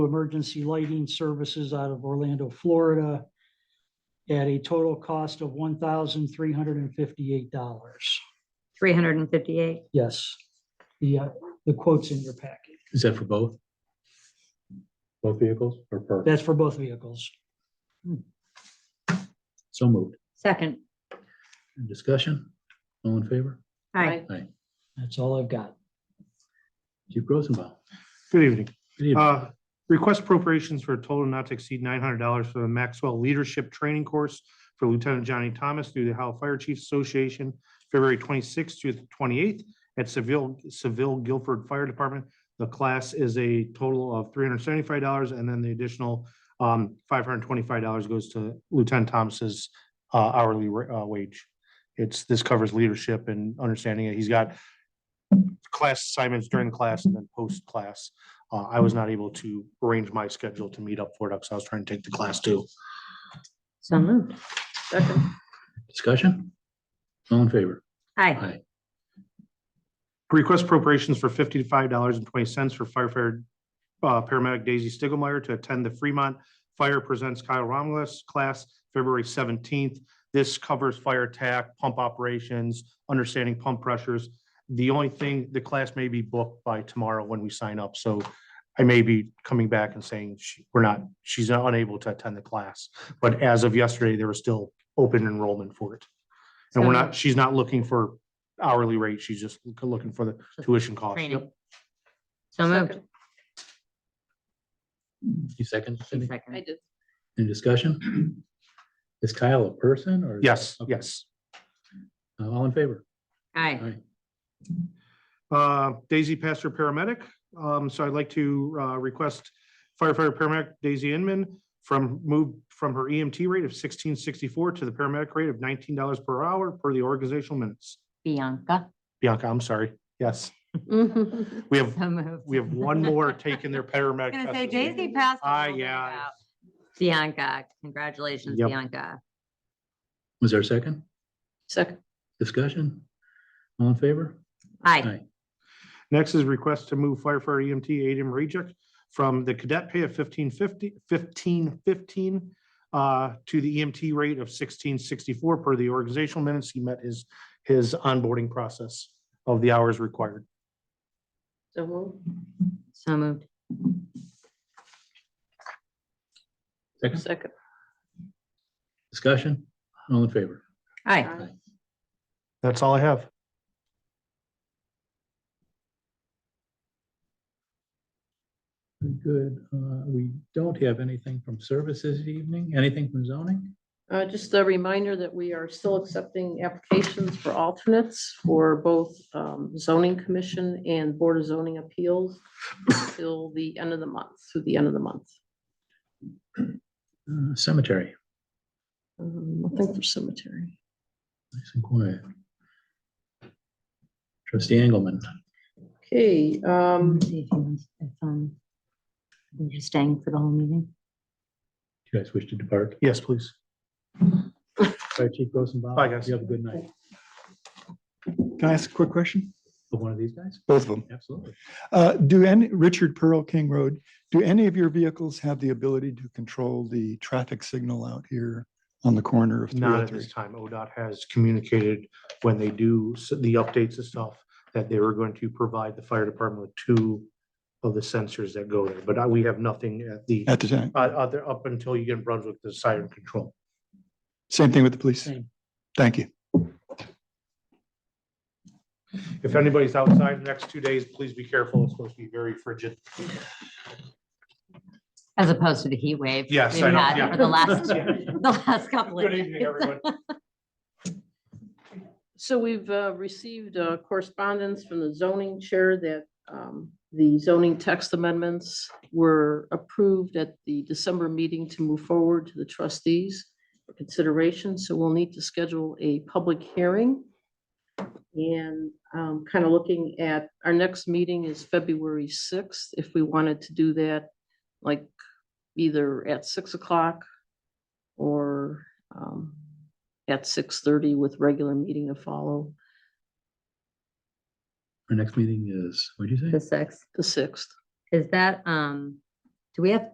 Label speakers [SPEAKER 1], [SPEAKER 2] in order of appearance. [SPEAKER 1] emergency lighting services out of Orlando, Florida at a total cost of one thousand three hundred and fifty-eight dollars.
[SPEAKER 2] 358.
[SPEAKER 1] Yes, the, uh, the quote's in your packet.
[SPEAKER 3] Is that for both? Both vehicles or per?
[SPEAKER 1] That's for both vehicles.
[SPEAKER 3] So moved.
[SPEAKER 2] Second.
[SPEAKER 3] Any Discussion? All in favor?
[SPEAKER 2] Aye.
[SPEAKER 1] That's all I've got.
[SPEAKER 3] Chief Rosenbaum.
[SPEAKER 4] Good evening.
[SPEAKER 3] Good evening.
[SPEAKER 4] Uh, Request appropriations for a total not to exceed nine hundred dollars for the Maxwell Leadership Training Course for Lieutenant Johnny Thomas through the Ohio Fire Chiefs Association, February twenty-sixth through the twenty-eighth at Seville, Seville Guilford Fire Department. The class is a total of three hundred seventy-five dollars, and then the additional um, five hundred twenty-five dollars goes to Lieutenant Thomas's uh, hourly ra- uh, wage. It's, this covers leadership and understanding it. He's got class assignments during class and then post-class. Uh, I was not able to arrange my schedule to meet up for it, because I was trying to take the class too.
[SPEAKER 2] So moved. Second.
[SPEAKER 3] Discussion? All in favor?
[SPEAKER 2] Aye.
[SPEAKER 4] Request appropriations for fifty-five dollars and twenty cents for firefighter, uh, paramedic Daisy Stiglmeyer to attend the Fremont Fire Presents Kyle Romulus class, February seventeenth. This covers fire attack, pump operations, understanding pump pressures. The only thing, the class may be booked by tomorrow when we sign up, so I may be coming back and saying she- we're not, she's unable to attend the class. But as of yesterday, there was still open enrollment for it. And we're not, she's not looking for hourly rate. She's just looking for the tuition cost.
[SPEAKER 2] Training.
[SPEAKER 4] Yep.
[SPEAKER 2] So moved.
[SPEAKER 3] You second, Cindy?
[SPEAKER 5] I
[SPEAKER 2] Second.
[SPEAKER 5] did.
[SPEAKER 3] Any discussion? Is Kyle a person or?
[SPEAKER 4] Yes,
[SPEAKER 3] Okay.
[SPEAKER 4] yes.
[SPEAKER 3] Uh, All in favor?
[SPEAKER 2] Aye.
[SPEAKER 4] Uh, Daisy Pastor Paramedic. Um, so I'd like to, uh, request firefighter paramedic Daisy Inman from move from her EMT rate of sixteen sixty-four to the paramedic rate of nineteen dollars per hour per the organizational minutes.
[SPEAKER 2] Bianca.
[SPEAKER 4] Bianca, I'm sorry. Yes,
[SPEAKER 2] So
[SPEAKER 4] we have,
[SPEAKER 2] moved.
[SPEAKER 4] we have one more taking their paramedic.
[SPEAKER 2] Gonna
[SPEAKER 4] test
[SPEAKER 2] say
[SPEAKER 4] this year.
[SPEAKER 2] Daisy passed. the
[SPEAKER 4] Ah,
[SPEAKER 2] whole thing
[SPEAKER 4] yeah.
[SPEAKER 2] out. Bianca, congratulations,
[SPEAKER 4] Yep.
[SPEAKER 2] Bianca.
[SPEAKER 3] Was there a second?
[SPEAKER 5] Second.
[SPEAKER 3] Discussion? All in favor?
[SPEAKER 2] Aye.
[SPEAKER 4] Next is request to move firefighter EMT Adam Rejek from the cadet pay of fifteen fifty, fifteen fifteen uh, to the EMT rate of sixteen sixty-four per the organizational minutes. He met his, his onboarding process of the hours required.
[SPEAKER 5] So moved.
[SPEAKER 2] So moved.
[SPEAKER 3] Second,
[SPEAKER 5] Second.
[SPEAKER 3] discussion? All in favor?
[SPEAKER 2] Aye.
[SPEAKER 4] That's all I have.
[SPEAKER 3] Very Good. Uh, We don't have anything from services this evening. Anything from zoning?
[SPEAKER 5] Uh, just a reminder that we are still accepting applications for alternates for both um, zoning commission and board of zoning appeals till the end of the month, through the end of the month.
[SPEAKER 3] Uh, Cemetery,
[SPEAKER 5] Um, Nothing for cemetery.
[SPEAKER 3] nice and quiet. Trustee Engelmann.
[SPEAKER 5] Okay, um,
[SPEAKER 2] See if he wants- if, um, You're staying for the whole meeting?
[SPEAKER 3] Do you guys wish to depart?
[SPEAKER 4] Yes, please.
[SPEAKER 3] Fire Chief Rosenbaum.
[SPEAKER 4] Bye, guys.
[SPEAKER 3] You have a good night.
[SPEAKER 6] Can I ask a quick question?
[SPEAKER 3] Of One of these guys?
[SPEAKER 6] Both of them.
[SPEAKER 3] Absolutely.
[SPEAKER 6] Uh, do any, Richard Pearl, King Road, do any of your vehicles have the ability to control the traffic signal out here on the corner of
[SPEAKER 4] Not at this
[SPEAKER 6] 303?
[SPEAKER 4] time. ODOT has communicated when they do s- the updates and stuff that they were going to provide the fire department with two of the sensors that go there, but I- we have nothing at the,
[SPEAKER 6] At the time.
[SPEAKER 4] uh, other, up until you get in Brunswick, the siren control.
[SPEAKER 6] Same thing with the police.
[SPEAKER 1] Same.
[SPEAKER 6] Thank you.
[SPEAKER 4] If anybody's outside the next two days, please be careful. It's supposed to be very frigid.
[SPEAKER 2] As opposed to the heat wave.
[SPEAKER 4] Yes,
[SPEAKER 2] we've
[SPEAKER 4] I know,
[SPEAKER 2] had
[SPEAKER 4] yeah.
[SPEAKER 2] For the last,
[SPEAKER 4] Yeah.
[SPEAKER 2] the last couple of.
[SPEAKER 4] Good evening,
[SPEAKER 2] days.
[SPEAKER 4] everyone.
[SPEAKER 5] So we've uh, received uh, correspondence from the zoning chair that um, the zoning text amendments were approved at the December meeting to move forward to the trustees for consideration. So we'll need to schedule a public hearing. And kind of looking at, our next meeting is February 6th. If we wanted to do that, like either at 6 o'clock or um, at six thirty with regular meeting to follow,
[SPEAKER 3] Our next meeting is, what'd you
[SPEAKER 2] The
[SPEAKER 3] say?
[SPEAKER 2] sixth.
[SPEAKER 5] the sixth.
[SPEAKER 2] Is that, um, Do we have,